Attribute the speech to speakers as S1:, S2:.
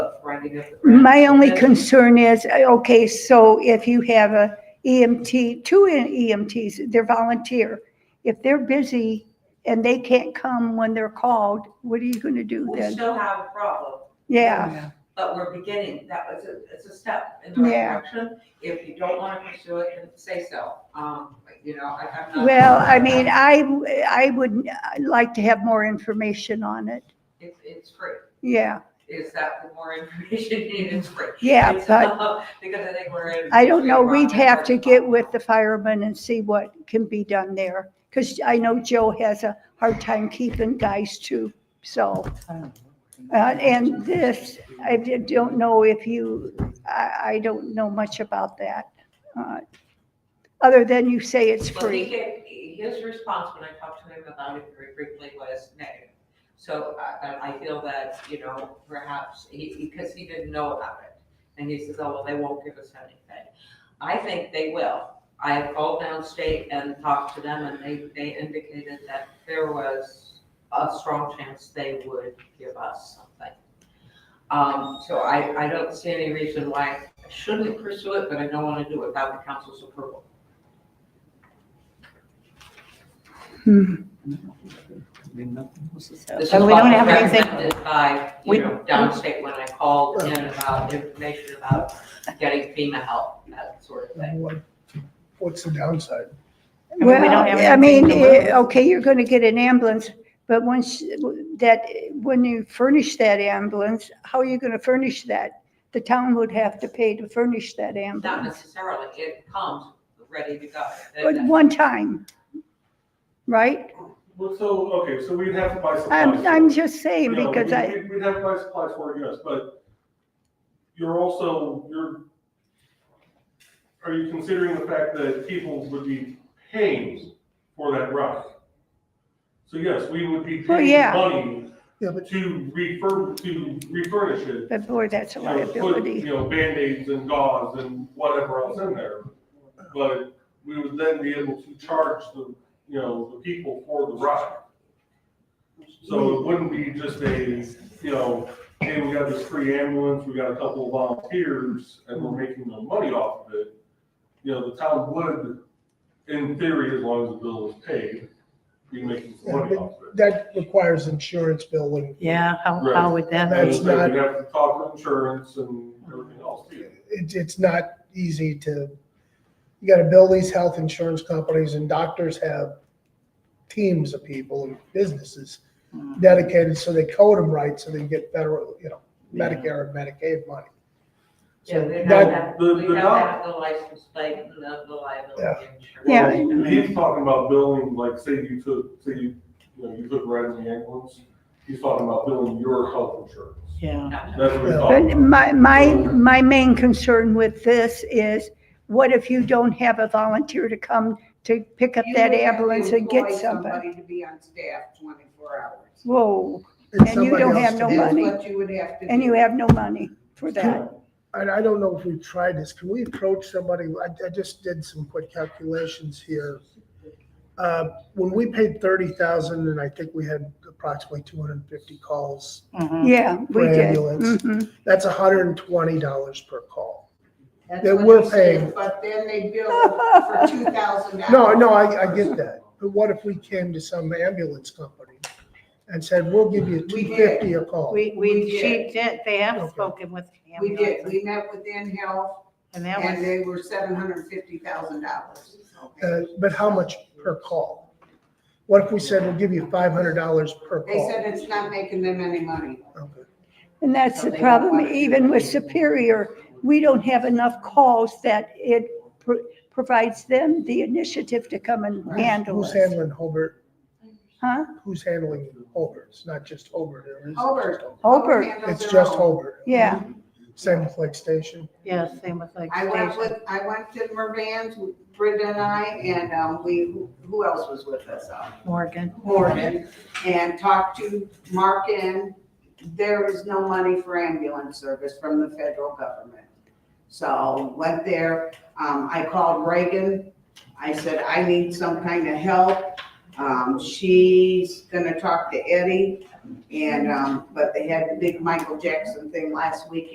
S1: rounding up. the price.
S2: My only
S1: That's-
S2: concern is, uh, okay, so if you have a EMT, two EMTs, they're volunteer. If they're busy and they can't come when they're called, what are you gonna do
S1: We
S2: then?
S1: still have a problem,
S2: Yeah,
S1: but we're beginning, that was, a- it's a step in the right
S2: Yeah.
S1: direction. If you don't want to pursue it, then say so, um, but, you know, I, I'm not.
S2: well, I mean, I, I would uh, like to have more information on it.
S1: It's, it's free,
S2: Yeah,
S1: is that the more information needed, it's free.
S2: yeah,
S1: It's,
S2: but
S1: uh, Because I think we're. in
S2: I don't know,
S1: between
S2: we'd
S1: rock and
S2: have to
S1: hard
S2: get
S1: spot.
S2: with the firemen and see what can be done there. Cause I know Joe has a hard time keeping guys too, so. Uh, and this, I di- don't know if you, I, I don't know much about that. uh, Other than you say it's
S1: Well, he
S2: free.
S1: gave, his response when I talked to him about it very briefly was negative. So I, I- I feel that, you know, perhaps, he, because he didn't know about it. And he says, oh, well, they won't give us anything. I think they will. I have called downstate and talked to them and they, they indicated that there was a strong chance they would give us something. Um, so I, I don't see any reason why I shouldn't pursue it, but I don't want to do it without the council's approval.
S2: Hmm.
S1: This
S2: And
S1: is
S2: we don't
S1: what
S2: have
S1: was
S2: anything-
S1: recommended by,
S2: We-
S1: you know, downstate when I called in about information about getting FEMA help, that sort of thing.
S3: What- What's the downside?
S4: mean, we don't
S2: Well,
S4: have
S2: I
S4: anything
S2: mean,
S4: to
S2: eh,
S4: lose.
S2: okay, you're gonna get an ambulance, but once that, when you furnish that ambulance, how are you gonna furnish that? The town would have to pay to furnish that
S1: Not
S2: ambulance,
S1: necessarily, it comes ready to go.
S2: but one time, right?
S5: Well, so, okay, so we'd have to buy supplies.
S2: I'm, I'm just saying
S5: You know,
S2: because
S5: we-
S2: I,
S5: we- We'd have to buy supplies for it, yes, but you're also, you're, are you considering the fact that people would be paying for that ride? So yes, we would be
S2: Well,
S5: paying
S2: yeah.
S5: money
S3: Yeah, but
S5: to refurb, to refurnish it.
S2: but boy, that's a
S5: you know, put, You
S2: liability.
S5: know, Band-Aids and gauze and whatever else in there. But we would then be able to charge the, you know, the people for the ride. So it wouldn't be just a, you know, hey, we got this free ambulance, we got a couple of volunteers, and we're making no money off of it. You know, the town would, in theory, as long as the bill is paid, be making some money off of it.
S3: that requires insurance bill and
S4: Yeah, how,
S5: Right.
S4: how would that
S3: That's
S4: be?
S5: And then
S3: not-
S5: We'd have to talk to insurance and everything else too.
S3: it, it's not easy to, you gotta build these health insurance companies and doctors have teams of people and businesses
S1: Hmm.
S3: dedicated so they code them right so they get federal, you know, Medicare and Medicaid money.
S1: Yeah, we have
S3: that-
S1: that,
S5: the-
S1: we
S5: the
S1: have that,
S5: doc-
S1: the license plate and the the liability insurance.
S2: Yeah.
S5: Well, He's talking about billing, like, say you took, say you, you know, you took Red in the ambulance, he's talking about billing your health insurance.
S1: No,
S4: Yeah.
S1: no.
S5: That's what he's talking
S2: But
S5: about.
S2: my, my, my main concern with this is, what if you don't have a volunteer to come to pick up
S6: You
S2: that
S6: would have to
S2: ambulance and get
S6: employ
S2: somebody?
S6: To be on staff twenty-four hours.
S2: Whoa, And you
S3: somebody
S2: don't
S3: else
S2: have
S3: to
S2: no
S3: do it.
S2: money.
S6: That's what you would have to do.
S2: and you have no money for that.
S3: And I don't know if we've tried this. Can we approach somebody? I, I just did some quick calculations here. Uh, When we paid thirty thousand, and I think we had approximately two hundred and fifty calls,
S4: Mhm.
S2: Yeah, we
S3: For
S2: did.
S3: ambulance.
S2: Mhm.
S3: that's hundred and twenty dollars per call.
S6: That's
S3: that
S6: what
S3: we're
S6: I said,
S3: paying.
S6: But then they bill for two thousand dollars.
S3: No, no, I, I get that. But what if we came to some ambulance company and said, we'll give you
S6: We
S3: two
S6: did.
S3: fifty a call?
S4: We,
S6: We
S4: we,
S6: did.
S4: she did, they have
S3: Okay.
S4: spoken with
S6: We did,
S4: ambulances,
S6: we met with InHealth
S4: and that
S6: and
S4: was,
S6: they were seven hundred and fifty thousand dollars.
S3: Uh, But how much per call? What if we said, we'll give you five hundred dollars per
S6: They
S3: call?
S6: said it's not making them any money.
S3: Okay.
S2: And that's
S6: So
S2: the
S6: they don't
S2: problem,
S6: want it.
S2: even with Superior, we don't have enough calls that it pro- provides them the initiative to come and handle
S3: Who's
S2: it.
S3: handling Hobart?
S2: Huh?
S3: Who's handling Hobart? It's not just Hobart. or is it just
S6: Hobart.
S2: Hobart.
S6: Handles
S3: It's
S6: their
S3: just
S6: own.
S3: Hobart.
S2: Yeah,
S3: Same with Lake Station.
S4: yeah, same with like
S6: I went
S4: station.
S6: with, I went to Mervans, Brenda and I, and, um, we, who- who else was with us? Um,
S4: Morgan.
S6: Morgan and talked to Mark and there is no money for ambulance service from the federal government. So went there, um, I called Reagan, I said, I need some kind of help. Um, she's gonna talk to Eddie and, um, but they had the big Michael Jackson thing last week